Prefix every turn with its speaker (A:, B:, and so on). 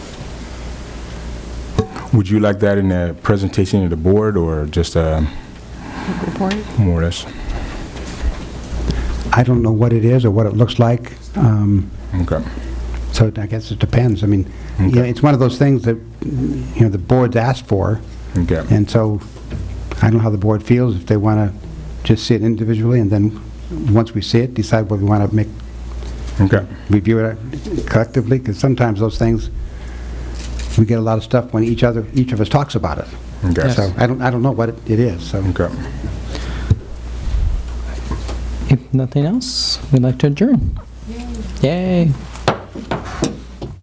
A: Would you like that in a presentation to the board or just um,
B: Report?
A: more or less?
C: I don't know what it is or what it looks like, um,
A: Okay.
C: so I guess it depends. I mean, you know, it's one of those things that, you know, the board's asked for,
A: Okay.
C: and so I don't know how the board feels, if they want to just see it individually, and then, once we see it, decide whether we want to make,
A: Okay.
C: review it collectively, because sometimes those things, we get a lot of stuff when each other, each of us talks about it.
A: Okay.
B: Yes.
C: So I don't, I don't know what it it is, so.
A: Okay.
D: If nothing else, we'd like to adjourn. Yay.